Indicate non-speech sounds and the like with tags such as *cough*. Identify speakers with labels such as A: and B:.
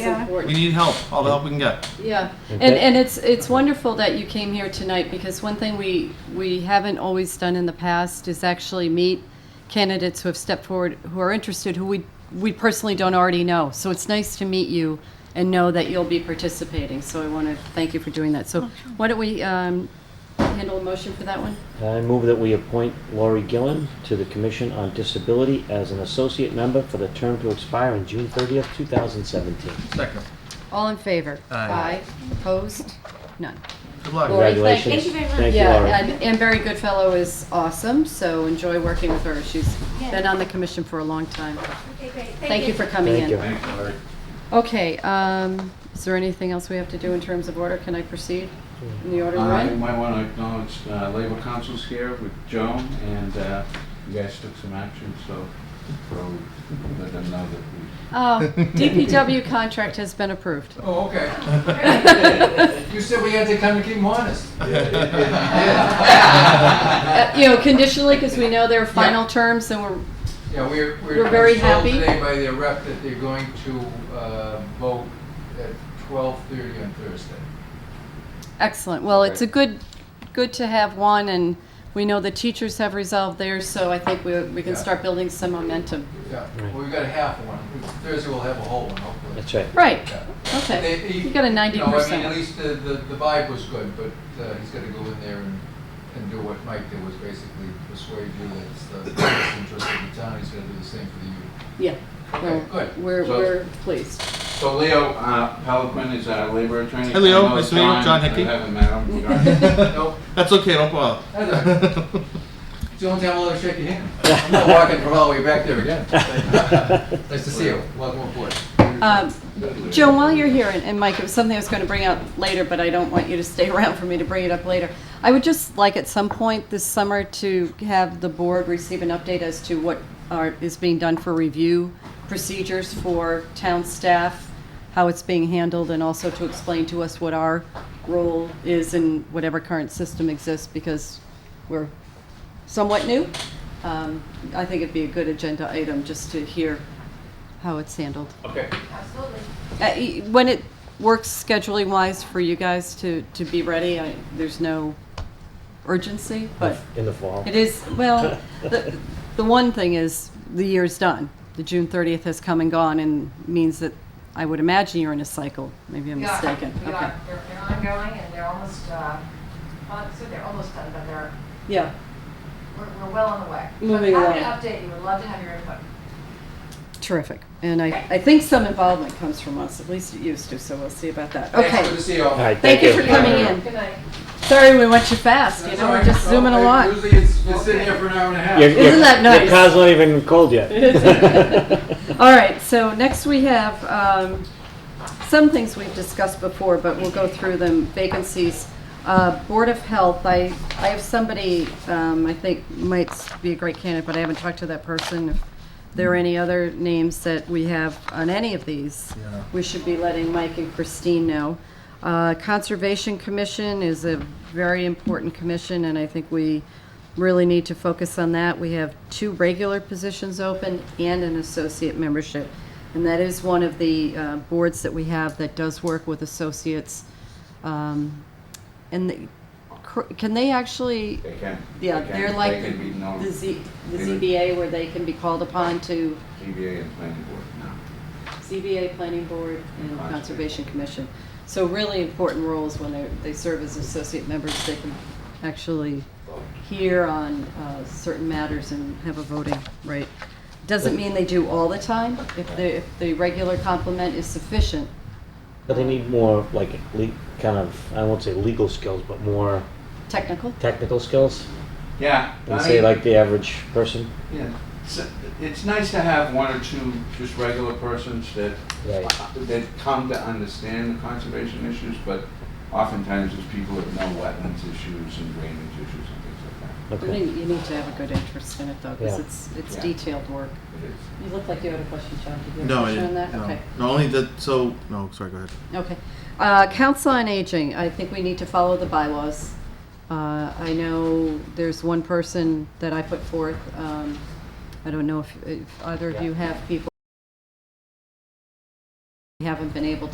A: Yeah.
B: important.
C: We need help, all the help we can get.
B: Yeah, and,
D: Okay.
B: and it's, it's wonderful that you came here tonight, because one thing we, we haven't always done in the past is actually meet candidates who have stepped forward, who are interested, who we, we personally don't already know. So it's nice to meet you and know that you'll be participating, so I want to thank you for doing that. So why don't we um, handle a motion for that one?
D: I move that we appoint Laurie Gillen to the Commission on Disability as an associate member for the term to expire on June 30th, 2017.
C: Second.
B: All in favor?
C: Aye.
B: Opposed? None.
C: Good luck.
B: Lori, thank-
D: Congratulations.
A: thank you very much.
D: Thank you,
B: Yeah,
D: Laurie.
B: and, and Barry Goodfellow is awesome, so enjoy working with her. She's been on the commission for a long time.
A: Okay, great.
B: Thank you for coming
D: Thank
B: in.
D: you.
B: Okay, um, is there anything else we have to do in terms of order? Can I proceed in the order we're
E: Uh, You
B: in?
E: might want to acknowledge uh, Labor Council's here with Joan, and uh, you guys took some action, so we'll let them know that we...
B: Oh,
F: *laughs*
B: DPW contract has been approved.
D: *laughs*
E: Oh, okay.
A: *laughs*
E: You said we had to come and keep them honest.
F: *laughs*
B: Uh, You know, conditionally, because we know their final terms and we're,
F: Yeah, we're,
B: We're very
F: we're told
B: happy.
F: today by their rep that they're going to uh, vote at twelve thirty on Thursday.
B: excellent. Well, it's a good, good to have one, and we know the teachers have resolved theirs, so I think we, we can
F: Yeah.
B: start building some momentum.
F: Yeah,
D: Right.
F: well, we've got a half of one. Thursday we'll have a whole one, hopefully.
D: That's right.
B: Right,
F: Yeah. They-
B: okay.
F: he-
B: You got a ninety
F: know, I mean, at
B: percent.
F: least the, the the vibe was good, but uh, he's got to go in there and, and do what Mike did, was basically persuade you that it's the best interest of the town. He's going to do the same for
D: *laughs*
F: the youth.
B: Yeah,
F: Okay, good.
B: we're,
E: So-
B: we're pleased.
E: So Leo uh, Pelican is our labor attorney.
C: Hey, Leo.
E: I know
C: Nice to meet you. John Hickey.
E: I haven't met
B: *laughs*
E: him. John.
F: Nope,
C: *laughs* That's okay, don't bother.
F: Heather, it's the only time I'll ever shake your hand. I'm not walking from all the way back there again. Nice to see you. Welcome aboard.
B: Um, Joan, while you're here, and- and Mike, it was something I was going to bring up later, but I don't want you to stay *laughs* around for me to bring it up later. I would just like at some point this summer to have the board receive an update as to what are, is being done for review procedures for town staff, how it's being handled, and also to explain to us what our role is in whatever current system exists, because we're somewhat new. Um, I think it'd be a good agenda item just to hear how it's handled.
F: Okay.
A: Absolutely.
B: Uh, y- When it works scheduling wise for you guys to, to be ready, I, there's no urgency, but
D: In the fall.
B: it is, well, the, the one thing is, the year's done. The June thirtieth has come and gone and means that, I would imagine you're in a cycle, maybe I'm
A: We are,
B: mistaken.
A: We
B: Okay.
A: are, they're, they're ongoing and they're almost, uh, well, so they're almost done, but they're,
B: Yeah,
A: we're, we're well on the way.
B: Moving
A: I'm happy
B: along.
A: to update you, would love to have your input.
B: terrific. And I, I think some involvement comes from us, at least it used to, so we'll see about that.
F: Thanks,
B: Okay,
F: Good to see you all.
D: All right,
B: thank you for
D: thank you.
B: coming in.
A: Good night.
B: Sorry we went too fast, you
F: That's
B: know,
F: all
B: we're
F: right.
B: just
F: Well,
B: zooming
F: it-
B: along.
F: Usually it's, it's sitting here for an hour and a half.
D: Your-
B: Isn't
D: your-
B: that nice?
D: Your car's not even
B: *laughs*
D: cold yet. *laughs*
B: All right, so next we have um, some things we've discussed before, but we'll go through them, vacancies. Uh, Board of Health, I, I have somebody um, I think might be a great candidate, but I haven't talked to that person. If there are any other names that we have on any of these, we should be letting Mike and Christine know. Uh, Conservation Commission is a very important commission, and I think we really need to focus on that. We have two regular positions open and an associate membership. And that is one of the uh, boards that we have that does work with associates. Um, And the- cr- can they actually,
E: They can.
B: yeah,
E: They can-
B: they're like
E: They can be known,
B: the Z- the
E: They would-
B: ZBA where they can be called upon to,
E: ZBA and planning board now.
B: ZBA, Planning Board, and
E: Conservation.
B: Conservation Commission. So really important roles when they, they serve as associate members, they can actually hear on uh, certain matters and have a voting right. Doesn't mean they do all the time. If the, if the regular complement is sufficient,
D: But they need more, like, le- kind of, I won't say legal skills, but more
B: technical,
D: technical skills.
E: Yeah.
D: Than
E: I
D: say
E: mean-
D: like the average person.
E: Yeah, it's, it's nice to have one or two just regular persons that,
D: Right.
E: that come to understand the conservation issues, but oftentimes it's people that know wetlands issues and drainage issues and things like that.
B: I
D: Okay.
B: think you need to have a good interest in it though, because
D: Yeah.
B: it's, it's
E: Yeah.
B: detailed work.
E: It is.
B: You look like you had a question, John. Did you have a
C: No, I
B: question on
C: didn't.
B: that?
C: No.
B: Okay.
C: No, only that, so, no, sorry, go ahead.
B: Okay. Uh, Council on Aging, I think we need to follow the bylaws. Uh, I know there's one person that I put forth, um, I don't know if, if either of you have people we haven't been able to.